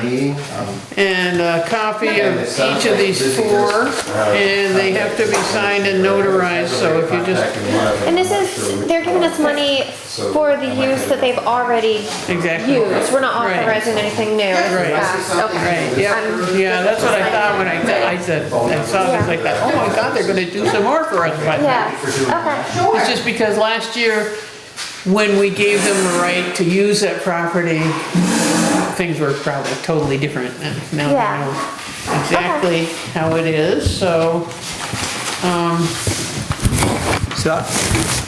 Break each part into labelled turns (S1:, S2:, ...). S1: meeting. Um,
S2: and a copy of
S1: And it sounds
S2: each of
S1: like
S2: these
S1: busy uh,
S2: four,
S1: business.
S2: and they have to be signed and notarized, so if you just,
S1: contacted one of them,
S3: And this
S1: I'm sure
S3: is,
S1: we-
S3: they're giving us money for the use that they've already
S2: exactly.
S3: used. We're not
S2: Right.
S3: authorizing anything new.
S2: Right.
S3: Yeah,
S2: Right,
S3: Okay.
S2: yeah,
S3: I'm-
S2: yeah, that's what I thought when I, I said, I saw this like that, oh my god, they're gonna do some more for us, but.
S3: Yeah, okay. Sure.
S2: It's just because last year, when we gave them the right to use that property, things were probably totally different. and Now they
S3: Yeah.
S2: know exactly how it is, so,
S4: So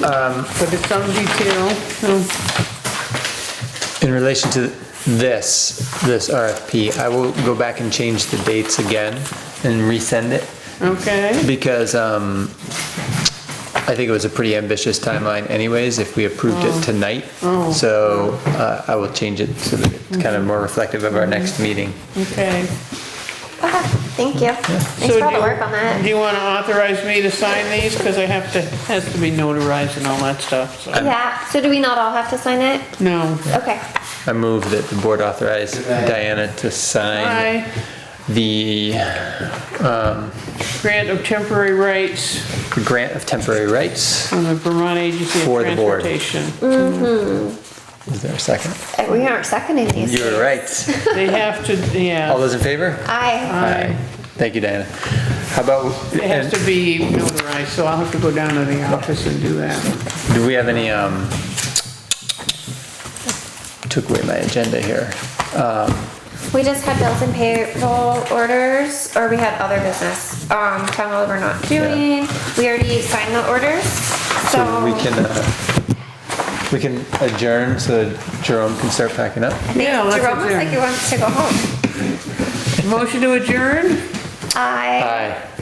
S2: but it's some detail. Oh, so-
S4: in relation to this, this RFP, I will go back and change the dates again and resend it
S2: Okay,
S4: because um, I think it was a pretty ambitious timeline anyways, if we approved it tonight. So uh, I will change it so that it's kind of more reflective of our next meeting.
S2: okay.
S3: Okay, thank you. Thanks
S2: So
S3: for all
S2: do
S3: the
S2: you-
S3: work on
S2: Do
S3: that.
S2: you wanna authorize me to sign these? Cause I have to, has to be notarized and all that stuff, so.
S3: Yeah, so do we not all have to sign it?
S2: No.
S3: Okay.
S4: I move that the board authorize Diana to sign
S2: I
S4: the
S2: grant of temporary rights
S4: grant of temporary rights.
S2: from the Vermont Agency of
S4: For the board.
S2: Transportation.
S4: Is there a second?
S3: Uh, We aren't seconding these.
S4: You're right.
S2: They have to,
S4: All
S2: yeah,
S4: those in favor?
S3: Aye.
S4: Aye. Thank you, Diana. How about,
S2: it has
S4: and
S2: to be notarized, so I'll have to go down to the office and do that.
S4: do we have any, um, took away my agenda here.
S3: We just had bills and payroll orders, or we had other business. Um, town hall we're not doing. We already signed the orders, so.
S4: So we can, uh, we can adjourn so that Jerome can start packing up.
S2: Yeah, let's
S3: Jerome looks like he
S2: adjourn.
S3: wants to go home.
S2: Motion to adjourn?
S3: I.
S4: Aye.